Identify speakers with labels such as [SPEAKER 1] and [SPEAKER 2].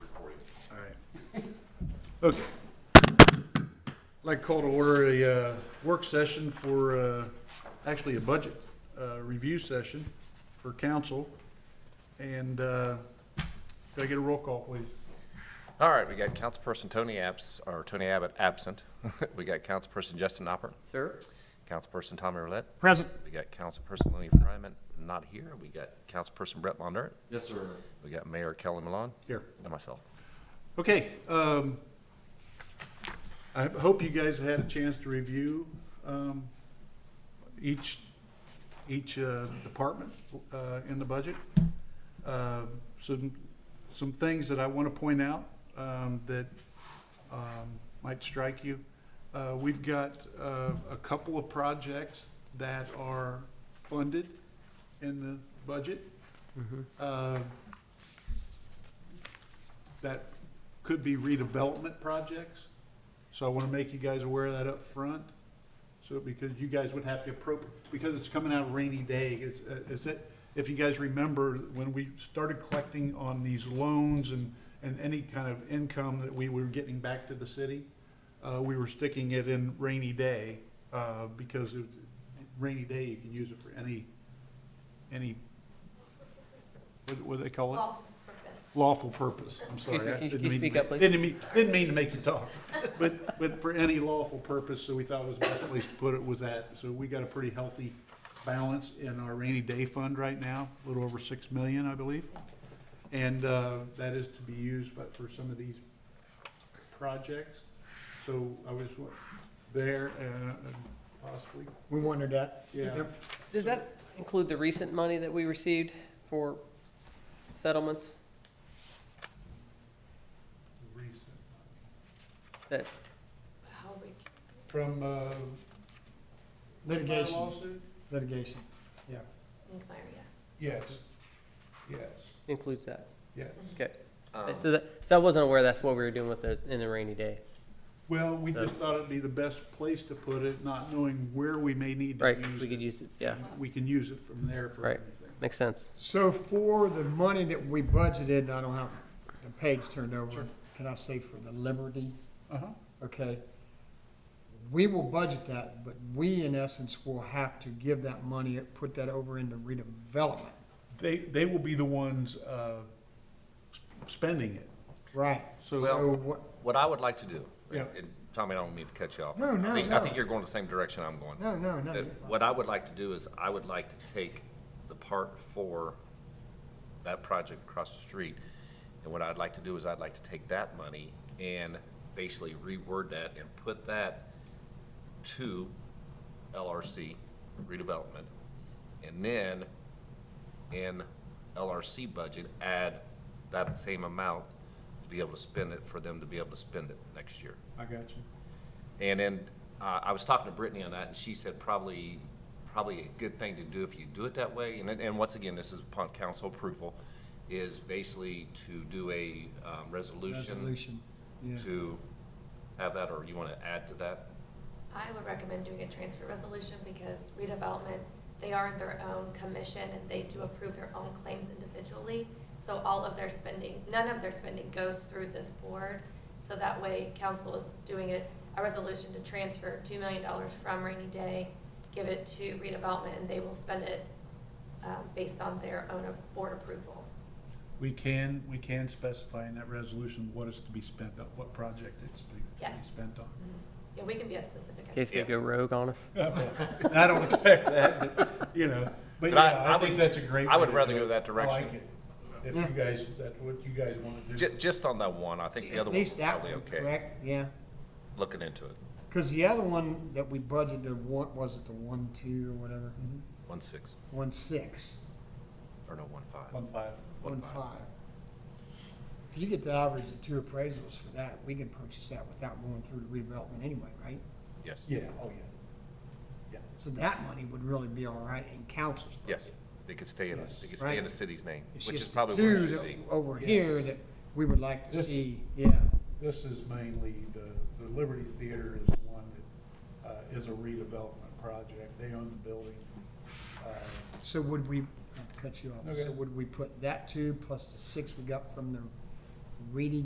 [SPEAKER 1] Okay. I'd like to call to order a uh, work session for, uh, actually a budget uh, review session for council. And uh, could I get a roll call, please?
[SPEAKER 2] All right, we got Councilperson Tony Abs, or Tony Abbott absent. We got Councilperson Justin Opper,
[SPEAKER 3] Sir?
[SPEAKER 2] Councilperson Tommy Roulette.
[SPEAKER 1] Present.
[SPEAKER 2] We got Councilperson Lenny Fryman, not here. We got Councilperson Brett Mondurant.
[SPEAKER 3] Yes, sir.
[SPEAKER 2] We got Mayor Kelly Malone
[SPEAKER 1] Here.
[SPEAKER 2] and myself.
[SPEAKER 1] Okay, um, I hope you guys had a chance to review, um, each, each, uh, department, uh, in the budget. Uh, some, some things that I want to point out, um, that, um, might strike you. Uh, we've got, uh, a couple of projects that are funded in the budget. Uh, that could be redevelopment projects. So I want to make you guys aware of that up front. So because you guys would have to appropriate, because it's coming out of rainy day, is, uh, is it, if you guys remember, when we started collecting on these loans and, and any kind of income that we were getting back to the city, uh, we were sticking it in rainy day, uh, because it- rainy day, you can use it for any, any, what, what do they call it? lawful
[SPEAKER 4] Lawful purpose.
[SPEAKER 1] purpose. I'm sorry.
[SPEAKER 3] Excuse me,
[SPEAKER 1] I
[SPEAKER 3] can you-
[SPEAKER 1] didn't
[SPEAKER 3] can you
[SPEAKER 1] mean-
[SPEAKER 3] speak up, please?
[SPEAKER 1] Didn't mean, didn't mean to make you talk, but, but for any lawful purpose, so we thought it was the best place to put it was that. So we got a pretty healthy balance in our rainy day fund right now, a little over six million, I believe. And, uh, that is to be used, but for some of these projects. So I was there, uh, and possibly,
[SPEAKER 5] We wondered that.
[SPEAKER 1] yeah.
[SPEAKER 5] Yep.
[SPEAKER 3] Does that include the recent money that we received for settlements?
[SPEAKER 1] Recent.
[SPEAKER 3] That,
[SPEAKER 4] How we-
[SPEAKER 1] From, uh.
[SPEAKER 5] Litigation,
[SPEAKER 1] lawsuit?
[SPEAKER 5] litigation.
[SPEAKER 4] inquire, yes.
[SPEAKER 1] Yes, yes,
[SPEAKER 3] includes that.
[SPEAKER 1] yes.
[SPEAKER 3] Okay.
[SPEAKER 2] Um,
[SPEAKER 3] So that, so I wasn't aware that's what we were doing with those in the rainy day.
[SPEAKER 1] Well, we
[SPEAKER 3] So-
[SPEAKER 1] just thought it'd be the best place to put it, not knowing where we may need to
[SPEAKER 3] Right,
[SPEAKER 1] use
[SPEAKER 3] we could
[SPEAKER 1] it.
[SPEAKER 3] use it, yeah,
[SPEAKER 1] We can use it from there for
[SPEAKER 3] Right.
[SPEAKER 1] everything.
[SPEAKER 3] makes sense.
[SPEAKER 5] So for the money that we budgeted, and I don't have the page turned
[SPEAKER 1] Sure.
[SPEAKER 5] over, can I say for the Liberty,
[SPEAKER 1] Uh-huh,
[SPEAKER 5] okay? We will budget that, but we in essence will have to give that money, put that over into redevelopment.
[SPEAKER 1] they, they will be the ones, uh, s- spending it,
[SPEAKER 5] Right,
[SPEAKER 1] so.
[SPEAKER 2] Well-
[SPEAKER 5] so what,
[SPEAKER 2] What I would like to do,
[SPEAKER 1] Yeah.
[SPEAKER 2] and Tommy, I don't mean to cut you off.
[SPEAKER 5] No, no,
[SPEAKER 2] I think- I
[SPEAKER 5] no.
[SPEAKER 2] think you're going the same direction I'm going.
[SPEAKER 5] no, no, no.
[SPEAKER 2] that
[SPEAKER 5] you're fine.
[SPEAKER 2] Uh, What I would like to do is, I would like to take the part for that project across the street, and what I'd like to do is, I'd like to take that money and basically reword that and put that to LRC redevelopment, and then in LRC budget, add that same amount to be able to spend it, for them to be able to spend it next year.
[SPEAKER 1] I got you.
[SPEAKER 2] And then, uh, I was talking to Brittany on that, and she said probably, probably a good thing to do if you do it that way, and, then- and once again, this is upon council approval, is basically to do a, um, resolution
[SPEAKER 5] Resolution, yeah.
[SPEAKER 2] to have that, or you wanna add to that?
[SPEAKER 4] I would recommend doing a transfer resolution because redevelopment, they are their own commission and they do approve their own claims individually. So all of their spending, none of their spending goes through this board. So that way, council is doing it, a resolution to transfer two million dollars from rainy day, give it to redevelopment, and they will spend it, um, based on their own board approval.
[SPEAKER 1] We can, we can specify in that resolution what is to be spent on, what project it's to be- to
[SPEAKER 4] Yes.
[SPEAKER 1] be spent on.
[SPEAKER 4] Yeah, we can be as specific
[SPEAKER 3] In
[SPEAKER 4] as.
[SPEAKER 3] case they
[SPEAKER 2] Yeah.
[SPEAKER 3] go rogue on us.
[SPEAKER 1] And I don't expect that, but, you know, but
[SPEAKER 2] But I-
[SPEAKER 1] yeah, I
[SPEAKER 2] I
[SPEAKER 1] think
[SPEAKER 2] would-
[SPEAKER 1] that's a great.
[SPEAKER 2] I would
[SPEAKER 1] way to
[SPEAKER 2] rather
[SPEAKER 1] do
[SPEAKER 2] go
[SPEAKER 1] it.
[SPEAKER 2] that
[SPEAKER 1] I like
[SPEAKER 2] direction.
[SPEAKER 1] it. If
[SPEAKER 5] Yeah.
[SPEAKER 1] you guys, that's what you guys want to do.
[SPEAKER 2] Ju- just on that one, I think the other
[SPEAKER 5] At
[SPEAKER 2] one's
[SPEAKER 5] least that
[SPEAKER 2] probably
[SPEAKER 5] one,
[SPEAKER 2] okay,
[SPEAKER 5] correct, yeah.
[SPEAKER 2] looking into it,
[SPEAKER 5] Because the other one that we budgeted, what was it, the one, two, or whatever,
[SPEAKER 1] Mhm.
[SPEAKER 2] one six,
[SPEAKER 5] one, six,
[SPEAKER 2] or no, one five.
[SPEAKER 1] One five.
[SPEAKER 2] One
[SPEAKER 5] one, five. If you get the average of two appraisals for that, we can purchase that without going through the redevelopment anyway, right?
[SPEAKER 2] yes,
[SPEAKER 1] Yeah, oh, yeah.
[SPEAKER 5] So that money would really be all right in council's budget.
[SPEAKER 2] yes, it could stay in, the- it could stay in the city's name,
[SPEAKER 5] It's
[SPEAKER 2] which is
[SPEAKER 5] just the
[SPEAKER 2] probably where it
[SPEAKER 5] two
[SPEAKER 2] should
[SPEAKER 5] that-
[SPEAKER 2] be.
[SPEAKER 5] Over
[SPEAKER 1] Yes.
[SPEAKER 5] here that we would like to
[SPEAKER 1] This-
[SPEAKER 5] see, yeah,
[SPEAKER 1] This is mainly, the, the Liberty Theater is the one that, uh, is a redevelopment project. They own the building. Uh,
[SPEAKER 5] so would we, I'll cut you off,
[SPEAKER 1] Okay.
[SPEAKER 5] so would we put that two plus the six we got from the Reedy